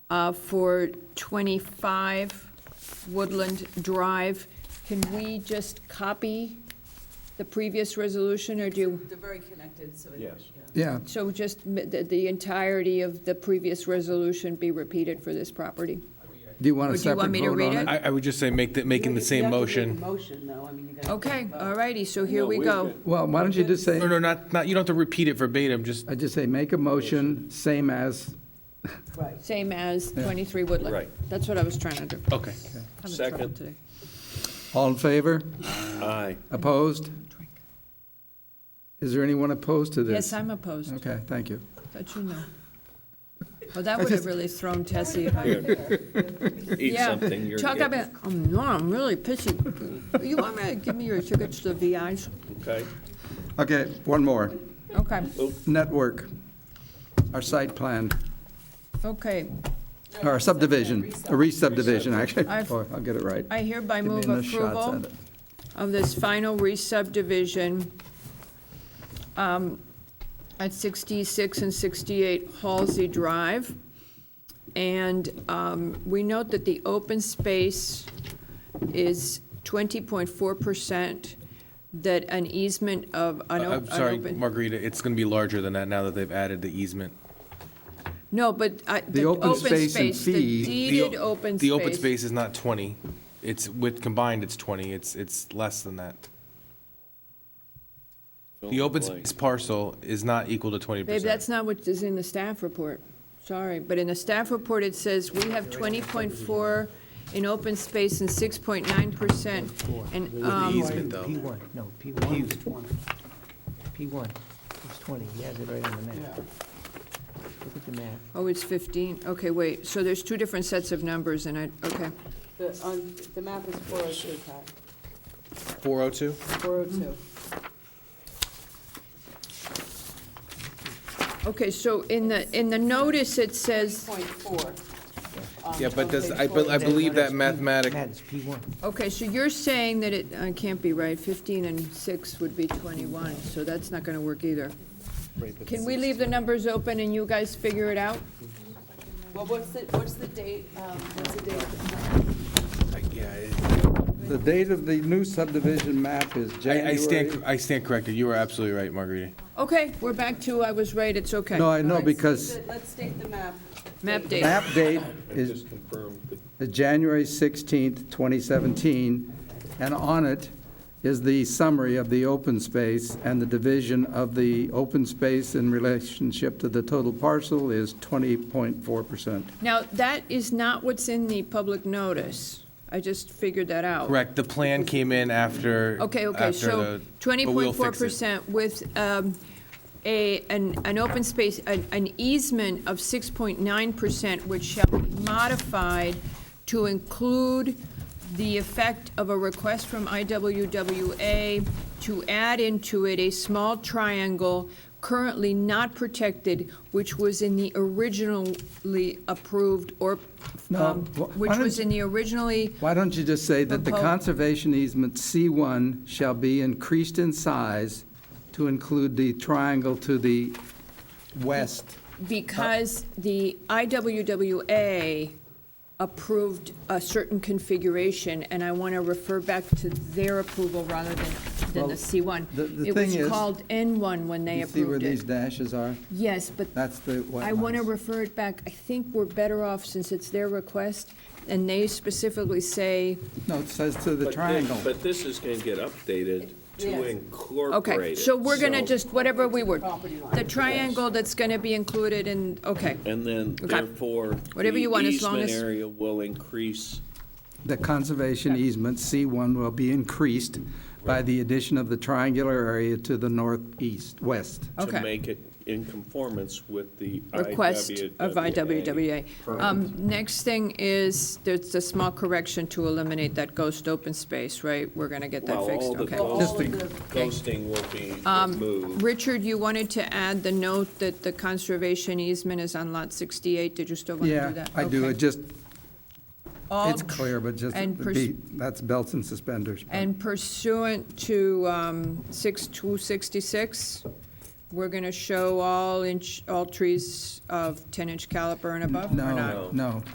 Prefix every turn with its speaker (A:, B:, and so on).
A: uh, for 25 Woodland Drive. Can we just copy the previous resolution, or do,
B: They're very connected, so. it-
C: Yes.
B: yeah.
D: Yeah,
A: so just m- the the entirety of the previous resolution be repeated for this property?
D: do you want
A: Or
D: a
A: do you
D: separate vote
A: want
D: on
A: me
D: it?
A: to read it?
E: I, I would just say make, the- making the
B: You
E: same
B: have to make a
E: motion.
B: motion, though, I mean, you gotta.
A: Okay, all righty, so here
C: No,
A: we
C: wait a
A: go.
C: minute.
D: Well, why don't you just say,
E: No, no, not, not, you don't have to repeat it verbatim, just,
D: I just say, make a motion, same as,
B: Right.
A: Same as 23 Woodland.
C: Right.
A: That's what I was trying to do.
E: okay.
A: I'm in trouble
C: Second.
A: today.
D: all in favor?
C: Aye.
D: Opposed? Is there anyone opposed to this?
A: Yes, I'm opposed,
D: Okay, thank you.
A: but you know. Well, that would have really thrown Tessie if I.
C: Eat
A: Yeah,
C: something. you're
A: Talk
C: getting-
A: about, um, no, I'm really pissy. You want me to give me your tickets to the VI's?
C: Okay.
D: Okay, one more.
A: Okay,
D: Network, our site plan,
A: okay.
D: or subdivision, a re-subdivision, actually.
A: I've-
D: Oh, I'll get it right.
A: I hereby
D: Give me
A: move
D: enough shots
A: approval.
D: at it.
A: of this final re-subdivision um, at 66 and 68 Halsey Drive. And um, we note that the open space is 20.4%, that an easement of
D: Uh,
E: I-
A: an o-
E: I'm sorry,
A: an open.
E: Margarita, it's gonna be larger than that now that they've added the easement.
A: No, but I- the
D: open
A: open
D: space and
A: space, the
D: fee-
E: The o-
A: deeded open space.
E: The open space is not twenty, it's, with, combined, it's twenty, it's, it's less than that. The open space parcel is not equal to twenty
A: Babe,
E: percent.
A: that's not what is in the staff report. Sorry, but in the staff report, it says we have twenty point four in open space and six point nine percent. And, um,
E: easement, though.
F: P1, no, P1 was 20. P1 was 20, he has it right on the map. Look at the map.
A: oh, it's fifteen, okay, wait, so there's two different sets of numbers and I, okay.
B: The, on, the map is four oh two, Pat,
E: Four oh two?
B: four oh two.
A: Mm-hmm. Okay, so in the, in the notice, it says,
B: Point four. um,
E: Yeah, but
B: on
E: does-
B: page
E: I bel- I
B: 402.
E: believe that
F: That's P-
E: mathematic-
F: That is P1.
A: okay, so you're saying that it, I can't be right, fifteen and six would be twenty-one, so that's not gonna work either. Can we leave the numbers open and you guys figure it out?
B: Well, what's the, what's the date, um, what's the date? of the plan?
D: The date of the new subdivision map is
E: I, I
D: January.
E: stand, I stand corrected, you are absolutely right, Margarita.
A: Okay, we're back to, I was right, it's okay.
D: No, I
B: All
D: know,
B: right, so
D: because
B: the- Let's state the map.
A: Map date.
D: map date is is January 16th, 2017, and on it is the summary of the open space, and the division of the open space in relationship to the total parcel is 20.4%.
A: Now, that is not what's in the public notice. I just figured that out.
E: Correct, the plan came in after.
A: Okay, okay,
E: after
A: so
E: the-
A: twenty
E: but we'll
A: point four
E: fix it.
A: percent with um, a, an, an open space, an an easement of six point nine percent, which shall be modified to include the effect of a request from IWWA to add into it a small triangle currently not protected, which was in the originally approved or,
D: No,
A: um,
D: wh- why
A: which was
D: don't-
A: in the originally,
D: Why don't you just say that the
A: Propo-
D: conservation easement C1 shall be increased in size to include the triangle to the west?
A: because the IWWA approved a certain configuration, and I want to refer back to their approval rather than, than the
D: Well,
A: C1.
D: the- the
A: It
D: thing
A: was
D: is-
A: called N1 when they
D: You see where
A: approved
D: these
A: it.
D: dashes are?
A: Yes, but
D: That's the wetlands.
A: I want to refer it back. I think we're better off since it's their request, and they specifically say,
D: No, it says to the
C: But thi-
D: triangle.
C: But this is going to get updated to
B: Yes.
C: incorporate it.
A: okay, so we're going to
C: so-
A: just, whatever we were,
B: Property line.
A: the triangle that's going to be included in, okay.
C: And then
A: Okay.
C: therefore.
A: Whatever you
C: the
A: want, as long as-
C: Easement area will increase.
D: The conservation easement, C1, will be increased by the addition of the triangular area to the northeast, west.
A: Okay.
C: To make it in conformance with the
A: request of IWWA. Um, Next thing is, there's a small correction to eliminate that ghost open space, right? We're going to get that
C: Well,
A: fixed,
C: all the
A: okay. Um,
B: All of
D: Just
B: the
C: Ghosting will be removed.
A: Richard, you wanted to add the note that the conservation easement is on Lot 68, did you still want to do
D: Yeah,
A: that?
D: I do,
A: Okay.
D: it just,
A: All
D: it's clear, but just,
A: and
D: the
A: pers-
D: be- that's belts and suspenders. but-
A: And pursuant to um, 6266, we're going to show all inch, all trees of 10-inch caliber and above or not?
D: No, no.